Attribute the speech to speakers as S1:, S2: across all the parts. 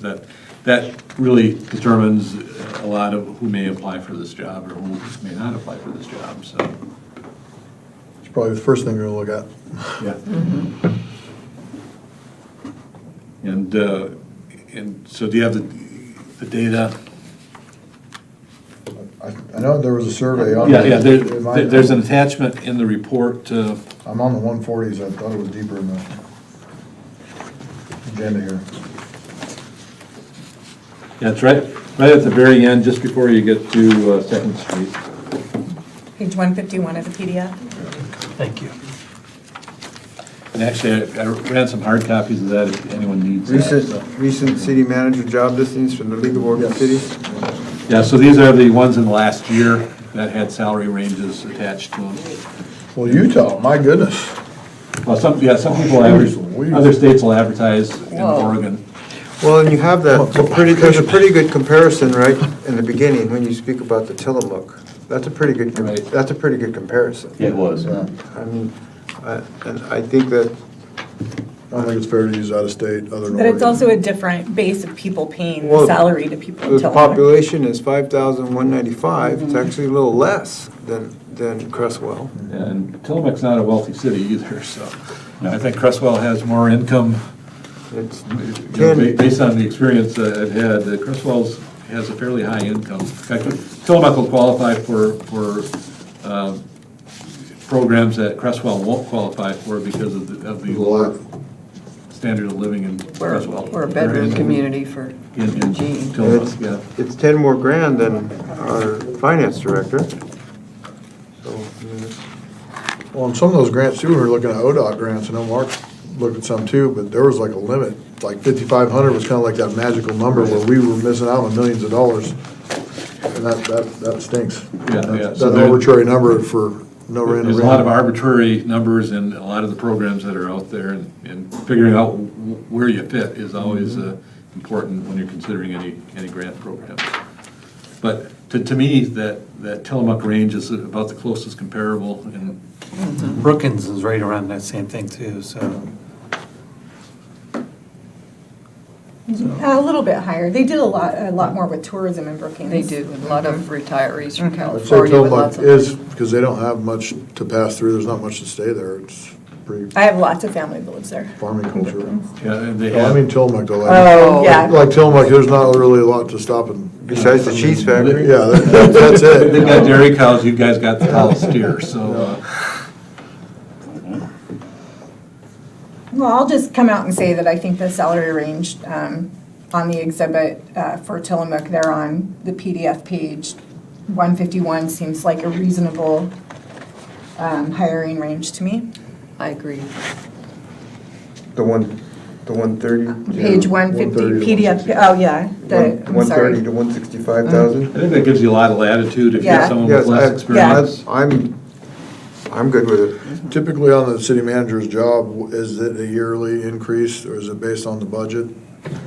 S1: that, that really determines a lot of who may apply for this job or who may not apply for this job, so,
S2: It's probably the first thing you're gonna look at.
S1: yeah. And, uh, and so do you have the, the data?
S2: I, I know there was a survey on.
S1: Yeah, yeah, there,
S2: Am I-
S1: there- there's an attachment in the report uh, to,
S2: I'm on the one forties, I thought it was deeper in the agenda here.
S1: yeah, it's right, right at the very end, just before you get to uh, Second Street.
S3: Page 151 of the PDF.
S4: Thank you.
S1: And actually, I I ran some hard copies of that if anyone needs that. so.
S5: Recent, recent city manager job listings from the League of Oregon
S2: Yes.
S5: Cities.
S1: Yeah, so these are the ones in the last year that had salary ranges attached to them.
S2: Well, Utah, my goodness.
S1: Well, some, yeah, some people average,
S2: Jeez.
S1: other states will advertise in
S3: Whoa.
S1: Oregon.
S5: Well, and you have that, it's a pretty, there's a pretty good comparison right in the beginning when you speak about the Tillamook. That's a pretty good, com-
S1: Right.
S5: that's a pretty good comparison.
S6: It was.
S2: Yeah.
S5: I mean, I- and I think that,
S2: I don't think it's fair to use out of state, other than
S3: But it's
S2: Oregon.
S3: also a different base of people paying the
S5: Well,
S3: salary to people in
S5: The
S3: Tillamook.
S5: population is five thousand one ninety-five, it's actually a little less than, than Crestwell.
S1: And Tillamook's not a wealthy city either, so I think Crestwell has more income,
S5: It's
S1: you know, ba-
S5: ten,
S1: based on the experience that I've had, that Crestwell's has a fairly high income. In fact, Tillamook will qualify for, for um, programs that Crestwell won't qualify for because of the, of the lower standard of living in
S7: We're,
S1: Crestwell.
S7: we're a bedroom community for
S1: In, in
S7: Eugene.
S1: Tillamook, yeah.
S5: it's ten more grand than our finance director. So, I mean, it's-
S2: Well, and some of those grants too, we were looking at ODOT grants, I know Mark looked at some too, but there was like a limit. Like fifty-five hundred was kinda like that magical number where we were missing out on millions of dollars. And that, that, that stinks.
S1: Yeah, yeah.
S2: That's-
S1: So
S2: That
S1: there-
S2: arbitrary number for no random.
S1: There's a lot of arbitrary numbers in a lot of the programs that are out there, and, and figuring out wh- where you fit is always uh, important when you're considering any, any grant program. But to, to me, that, that Tillamook range is about the closest comparable, and
S4: Brookings is right around that same thing too, so.
S3: Mm-hmm. A little bit higher. They did a lot, a lot more with tourism in Brookings. Mm-hmm.
S7: They do, a lot of retirees from
S2: I'd say
S7: California with lots
S2: Tillamook
S7: of.
S2: is, because they don't have much to pass through, there's not much to stay there, it's pretty
S3: I have lots of family that lives there.
S2: farming culture.
S1: yeah, and they
S2: I mean
S1: have,
S2: Tillamook though, like,
S3: Oh, yeah.
S2: like Tillamook, there's not really a lot to stop and.
S5: Besides the cheese factory.
S2: Yeah, that- that- that's it.
S1: they've got dairy cows, you guys got the cow steer, so, uh,
S3: Well, I'll just come out and say that I think the salary range um, on the exhibit uh, for Tillamook there on the PDF page, 151 seems like a reasonable um, hiring range to me.
S7: I agree.
S5: The one, the one thirty?
S3: Page 150 PDF, oh, yeah, the, I'm
S5: One thirty
S3: sorry.
S5: to one sixty-five thousand?
S1: I think that gives you a lot of latitude if you have
S3: Yeah.
S1: someone with
S5: Yes,
S1: less
S5: I-
S1: experience.
S5: I- I'm, I'm good with it.
S2: Typically on the city manager's job, is it a yearly increase or is it based on the budget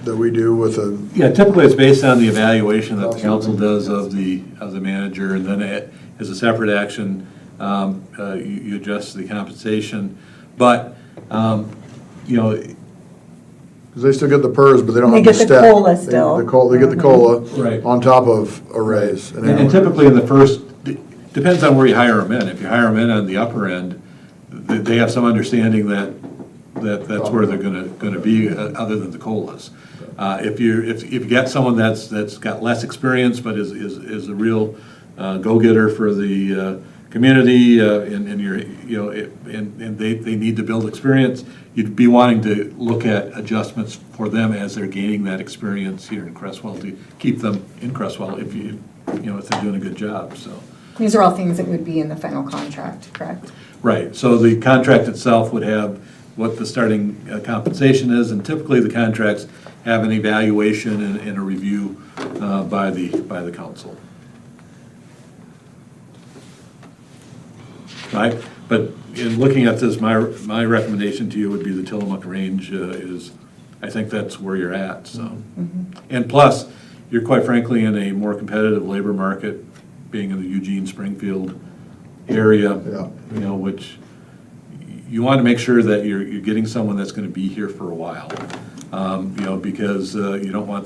S2: that we do with a,
S1: Yeah, typically it's based on the evaluation that the council does of the, of the manager, and then it- as a separate action, um, uh, you you adjust the compensation. But, um, you know,
S2: because they still get the PERS, but they don't
S3: They
S2: have the
S3: get the
S2: step.
S3: COLA
S2: They-
S3: still. Mm-hmm.
S2: The COLA, they get the COLA
S1: Right.
S2: on top of a raise. an
S1: and
S2: annual-
S1: typically in the first, depends on where you hire them in. If you hire them in on the upper end, th- they have some understanding that, that that's where they're gonna, gonna be, uh, other than the COLAs. Uh, If you, if if you get someone that's, that's got less experience, but is, is is a real uh, go-getter for the uh, community, uh, and, and you're, you know, it- and, and they, they need to build experience, you'd be wanting to look at adjustments for them as they're gaining that experience here in Crestwell, to keep them in Crestwell if you, you know, if they're doing a good job, so.
S3: These are all things that would be in the final contract, correct?
S1: Right, so the contract itself would have what the starting uh, compensation is, and typically the contracts have an evaluation and, and a review uh, by the, by the council. Right, but in looking at this, my, my recommendation to you would be the Tillamook range uh, is, I think that's where you're at, so. And plus, you're quite frankly in a more competitive labor market, being in the Eugene, Springfield area.
S2: Yeah.
S1: You know, which, you want to make sure that you're, you're getting someone that's going to be here for a while. Um, You know, because uh, you don't want